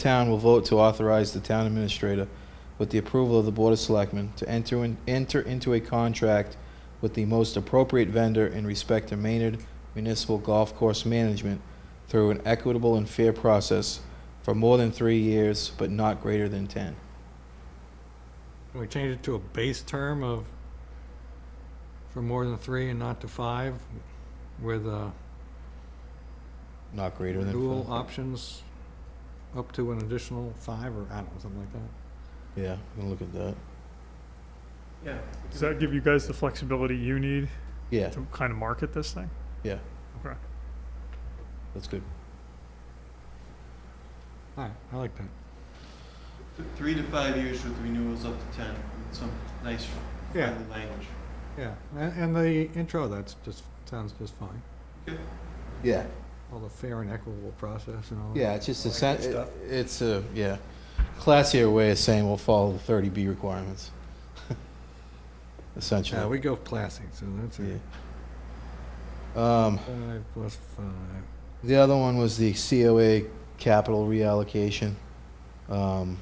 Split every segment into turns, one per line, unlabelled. town will vote to authorize the town administrator, with the approval of the Board of Selectmen, to enter, in- enter into a contract with the most appropriate vendor in respect to Maynard Municipal Golf Course Management through an equitable and fair process for more than three years, but not greater than 10.
Can we change it to a base term of, for more than three and not to five, with uh,
Not greater than.
renewal
five.
options up to an additional five, or I don't know, something like that?
Yeah, we can look at that.
Yeah.
Does that give you guys the flexibility you need
Yeah,
to kind of market this thing?
that's good.
All right, I like that.
Three to five years with renewals up to ten, some nice
Yeah,
friendly language.
yeah, and and the intro, that's just, sounds just fine.
Yeah,
All the fair and equitable process and all that.
yeah, it's just a,
Like
sen-
that stuff.
it- it's a, yeah, classier way of saying we'll follow the 30B requirements.
Yeah,
Essentially.
we go classy, so that's
Yeah.
it.
Um,
Five plus five.
The other one was the COA capital reallocation. Um,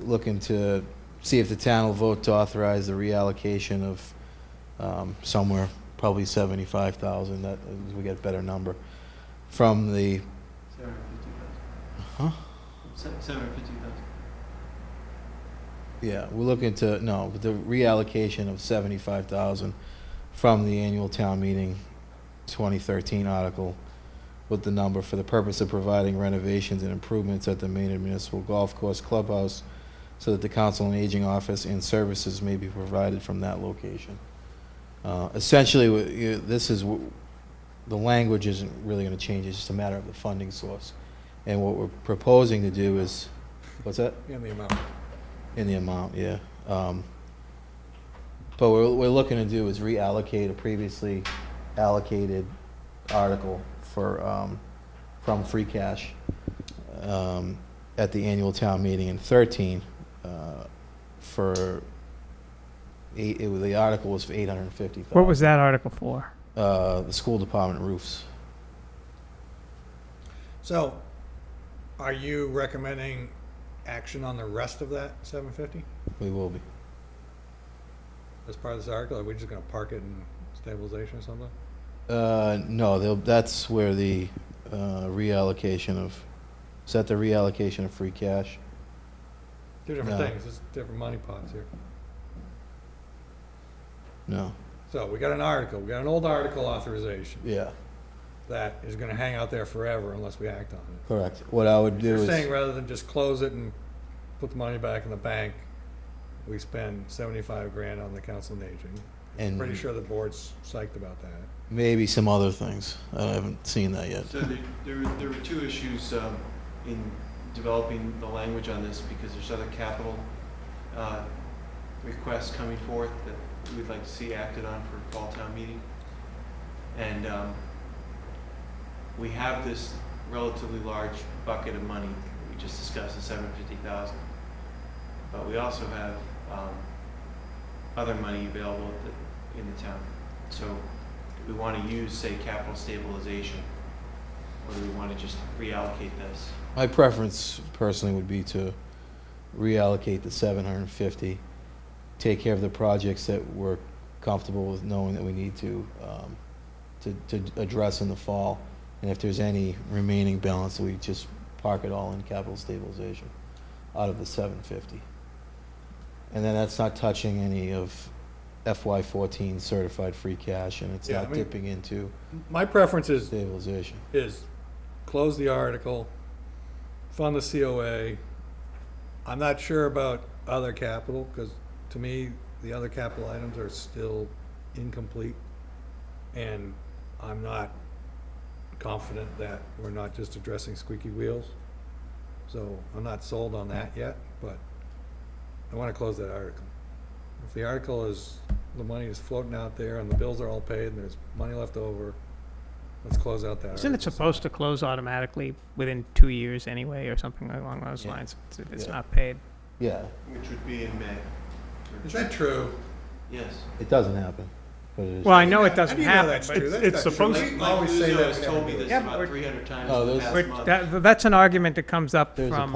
Looking to see if the town will vote to authorize the reallocation of um, somewhere, probably 75,000, that, we get a better number, from the,
Seven hundred fifty thousand.
huh?
Uh-huh.
Se- Seven hundred fifty thousand.
Yeah, we're looking to, no, the reallocation of 75,000 from the annual town meeting 2013 article with the number for the purpose of providing renovations and improvements at the Maynard Municipal Golf Course Clubhouse so that the Council on Aging Office and services may be provided from that location. Uh, Essentially, wha- you- this is, wh- the language isn't really going to change, it's just a matter of the funding source. And what we're proposing to do is, what's that?
And the amount.
In the amount, yeah. Um, But what we're looking to do is reallocate a previously allocated article for, um, from free cash um, at the annual town meeting in 13 uh, for, eight- it was- the article was for 850,000.
What was that article for?
Uh, The school department roofs.
So, are you recommending action on the rest of that seven fifty
We will be.
as part of this article? Are we just gonna park it in stabilization or something?
Uh, No, they'll- that's where the uh, reallocation of, is that the reallocation of free cash?
Two different
No.
things, it's different money pots here.
No.
So, we got an article, we got an old article authorization
Yeah,
that is gonna hang out there forever unless we act on it.
correct. What I would do
You're saying
is,
rather than just close it and put the money back in the bank, we spend seventy-five grand on the council on aging. Pretty
and
sure the board's psyched about that.
maybe some other things. I haven't seen that yet.
So there, there were, there were two issues, um, in developing the language on this, because there's other capital, uh, requests coming forth that we'd like to see acted on for fall town meeting. And, um, we have this relatively large bucket of money, we just discussed the seven fifty thousand. But we also have, um, other money available at the- in the town. So we wanna use, say, capital stabilization or do we want to just reallocate this?
My preference personally would be to reallocate the seven hundred and fifty, take care of the projects that we're comfortable with knowing that we need to, um, to, to address in the fall. And if there's any remaining balance, we just park it all in capital stabilization out of the seven fifty. And then that's not touching any of FY fourteen certified free cash and it's
Yeah, I
not
mean-
dipping into
My preference is
stabilization.
is close the article, fund the COA. I'm not sure about other capital, because to me, the other capital items are still incomplete. And I'm not confident that we're not just addressing squeaky wheels. So I'm not sold on that yet, but I want to close that article. If the article is, the money is floating out there and the bills are all paid and there's money left over, let's close out that article.
Isn't it supposed to close automatically within two years anyway, or something along those
Yeah.
lines? It's- If it's
Yeah.
not paid,
Yeah,
Which would be in May.
Is that true?
Yes.
it doesn't happen. but it is.
Well, I know it
How
doesn't
do you know
happen,
that's
but
true?
it's- it's
That's not true.
supposed-
Mike- Mike
Mike
always say
Luzo
that
has
to
told me
everybody.
this
Yeah, but
about
we're-
three hundred times
Oh,
in the
those-
past
We're-
month.
that, that's an argument that comes up
There's a
from